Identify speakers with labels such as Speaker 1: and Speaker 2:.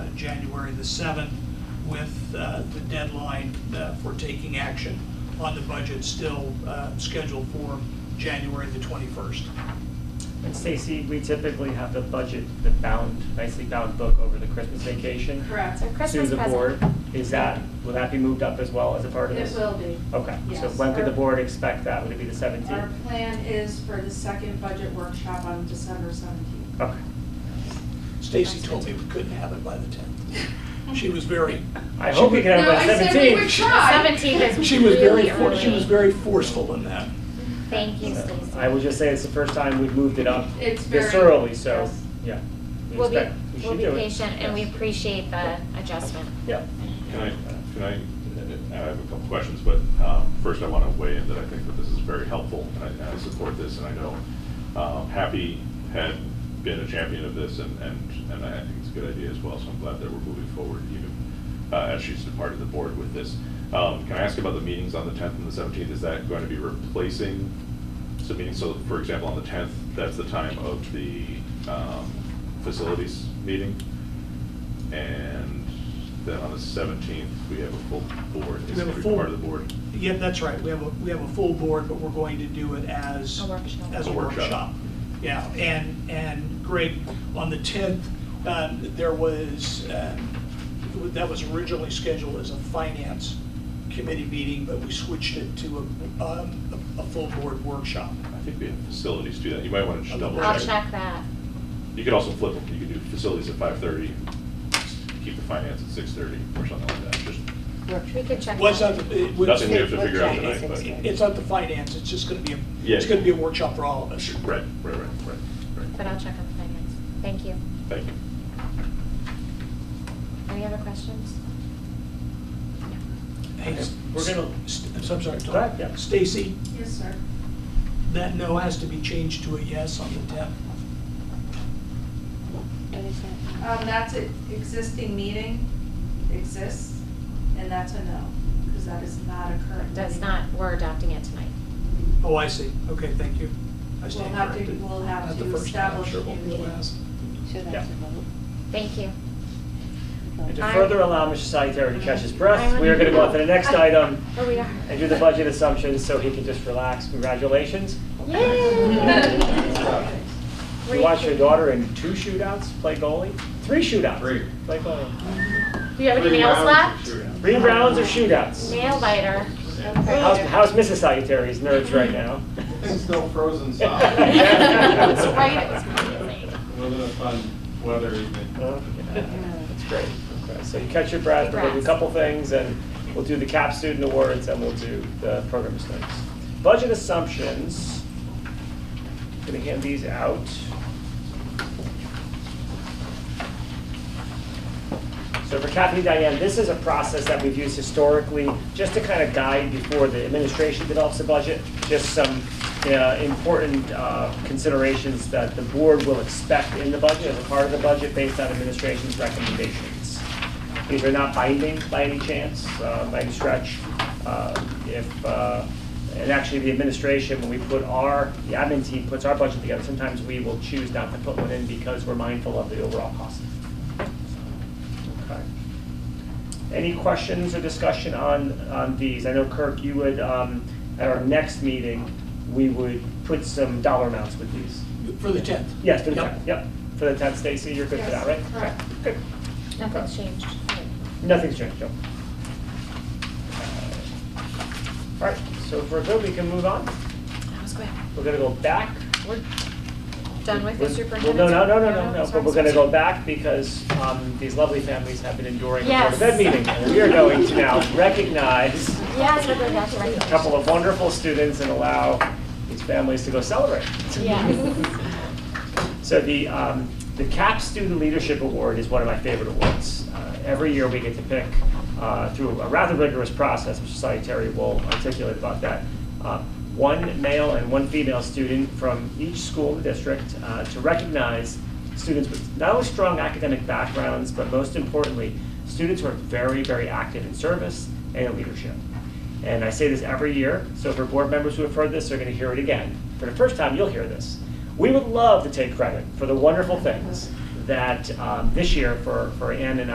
Speaker 1: January the 7th, with uh, the deadline uh, for taking action on the budget still uh, scheduled for January the 21st.
Speaker 2: And Stacy, we typically have the budget, the bound, nicely bound book over the Christmas vacation.
Speaker 3: Correct.
Speaker 4: So Christmas
Speaker 2: To the board,
Speaker 4: present.
Speaker 2: is that, will that be moved up as well as a part of this?
Speaker 3: It will be.
Speaker 2: Okay, so
Speaker 3: Yes.
Speaker 2: when could the
Speaker 3: Our-
Speaker 2: board expect that? Would it be the
Speaker 3: Our
Speaker 2: seventeenth?
Speaker 3: plan is for the second budget workshop on December seventeenth.
Speaker 2: Okay,
Speaker 1: Stacy told me we couldn't have it by the 10th. Oh. She was very,
Speaker 2: I hope we can have it by
Speaker 3: No, I said we would
Speaker 2: seventeenth.
Speaker 3: try.
Speaker 4: Seventeenth is
Speaker 1: she was very,
Speaker 4: really
Speaker 1: for-
Speaker 4: early.
Speaker 1: she was very forceful in that.
Speaker 4: Thank you, Stacy.
Speaker 2: I would just say it's the first time we've moved it up
Speaker 3: It's very.
Speaker 2: this early, so,
Speaker 3: yes.
Speaker 2: yeah. we
Speaker 4: We'll be,
Speaker 2: expect- we should
Speaker 4: we'll be
Speaker 2: do it.
Speaker 4: patient and we
Speaker 2: Yes.
Speaker 4: appreciate the adjustment.
Speaker 2: Yeah.
Speaker 5: Can I, can I, I have a couple questions, but um, first I want to weigh in that I think that this is very helpful, and I- and I support this, and I know um, Happy had been a champion of this, and, and and I think it's a good idea as well, so I'm glad that we're moving forward even uh, as she's departed the board with this. Um, Can I ask about the meetings on the 10th and the 17th? Is that going to be replacing some meetings? So for example, on the 10th, that's the time of the um, facilities meeting? And then on the seventeenth, we have a full board,
Speaker 1: We have
Speaker 5: it's
Speaker 1: a
Speaker 5: gonna be
Speaker 1: full-
Speaker 5: part of the board.
Speaker 1: Yeah, that's right. We have, a we have a full board, but we're going to do it as.
Speaker 3: Oh,
Speaker 4: A workshop.
Speaker 1: As a
Speaker 5: A workshop.
Speaker 1: workshop. Yeah, and, and Greg, on the 10th, um, there was, um, that was originally scheduled as a finance committee meeting, but we switched it to a, um, a a full board workshop.
Speaker 5: I think we have facilities do that, you might wanna just double check.
Speaker 4: I'll check that.
Speaker 5: You could also flip them, you could do facilities at five thirty, keep the finance at six thirty or something like that, just
Speaker 4: We could check.
Speaker 1: Well, it's
Speaker 4: that.
Speaker 1: not, the- it was-
Speaker 5: nothing we have to figure out
Speaker 6: Workshop
Speaker 5: tonight,
Speaker 6: is
Speaker 5: but.
Speaker 6: six
Speaker 1: it's not the finance, it's just going to be, a
Speaker 5: Yeah.
Speaker 1: it's going to be a workshop for all of us.
Speaker 5: Right, right, right, right,
Speaker 4: But
Speaker 5: right.
Speaker 4: I'll check on the finance. Thank you.
Speaker 5: Thank you.
Speaker 4: Any other questions?
Speaker 1: Hey, s-
Speaker 2: We're gonna-
Speaker 1: st- I'm so- I'm sorry,
Speaker 2: Go ahead, yeah.
Speaker 1: Tom. Stacy,
Speaker 3: Yes, sir.
Speaker 1: that no has to be changed to a yes on the 10th.
Speaker 6: What is that?
Speaker 3: Um, that's an existing meeting, exists, and that's a no, because that is not a current.
Speaker 4: Does
Speaker 3: meeting.
Speaker 4: not, we're adopting it tonight.
Speaker 1: Oh, I see. Okay, thank you. I
Speaker 3: We'll
Speaker 1: stand
Speaker 3: have to,
Speaker 1: corrected.
Speaker 3: we'll have
Speaker 1: Not the
Speaker 3: to
Speaker 1: first time, I'm
Speaker 3: establish.
Speaker 1: sure
Speaker 3: a
Speaker 1: we'll
Speaker 3: new
Speaker 1: do
Speaker 3: meeting.
Speaker 1: last.
Speaker 6: So
Speaker 2: Yeah.
Speaker 6: that's a vote.
Speaker 4: Thank you.
Speaker 2: And to
Speaker 4: I-
Speaker 2: further allow Mr. Salvatore to catch his
Speaker 4: I
Speaker 2: breath, we are gonna go on to the next item
Speaker 4: Oh, we are.
Speaker 2: and do the budget assumptions so he can just relax. Congratulations.
Speaker 4: Yay!
Speaker 2: You watched your daughter in two shootouts play goalie? Three shootouts?
Speaker 7: Three.
Speaker 2: Play goalie.
Speaker 4: Do you have any
Speaker 7: Three
Speaker 4: nails
Speaker 7: rounds
Speaker 4: left?
Speaker 7: of shootout.
Speaker 2: Three rounds of shootouts.
Speaker 4: Nail biter.
Speaker 2: How's, how's Mrs. Salutary's nerves right now?
Speaker 7: It's still frozen
Speaker 4: That's right, it was
Speaker 7: solid.
Speaker 4: amazing.
Speaker 7: Wasn't it fun weather evening?
Speaker 2: Oh, yeah. That's great. Okay, So you catch your breath, we're gonna do a
Speaker 4: Congrats.
Speaker 2: couple things, and we'll do the CAP student awards, and we'll do the program studies. Budget assumptions. Gonna hand these out. So for Kathy and Diane, this is a process that we've used historically, just to kind of guide before the administration develops a budget, just some uh, important uh, considerations that the board will expect in the budget, as a part of the budget, based on administration's recommendations. These are not binding by any chance, uh, by any stretch. Uh, If, uh, and actually, the administration, when we put our, the admin team puts our budget together, sometimes we will choose not to put one in because we're mindful of the overall cost. Okay. Any questions or discussion on, on these? I know Kirk, you would, um, at our next meeting, we would put some dollar amounts with these.
Speaker 1: For the 10th?
Speaker 2: Yes, for the
Speaker 1: Yep.
Speaker 2: tenth, yep. For the tenth, Stacy, you're good for that, right?
Speaker 3: Yes, correct.
Speaker 2: Okay, Good.
Speaker 4: Nothing's changed.
Speaker 2: Nothing's changed, no. All right, so if we're good, we can move on.
Speaker 4: That was quick.
Speaker 2: We're gonna go back.
Speaker 4: We're done with the
Speaker 2: We're-
Speaker 4: superintendent?
Speaker 2: Well, no, no, no, no, no, but
Speaker 4: sorry,
Speaker 2: we're gonna
Speaker 4: sorry.
Speaker 2: go back because um, these lovely families have been enduring a Board
Speaker 4: Yes.
Speaker 2: of Ed meeting. And we are going to now recognize
Speaker 4: Yes, we're going back to
Speaker 2: a
Speaker 4: recommendations.
Speaker 2: couple of wonderful students and allow these families to go celebrate.
Speaker 4: Yes.
Speaker 2: So the, um, the CAP Student Leadership Award is one of my favorite awards. Uh, Every year, we get to pick, uh, through a rather rigorous process, which Salutary will articulate about that, uh, one male and one female student from each school in the district uh, to recognize students with not only strong academic backgrounds, but most importantly, students who are very, very active in service and in leadership. And I say this every year, so for board members who have heard this, they're gonna hear it again. For the first time, you'll hear this. We would love to take credit for the wonderful things that um, this year for, for Ann and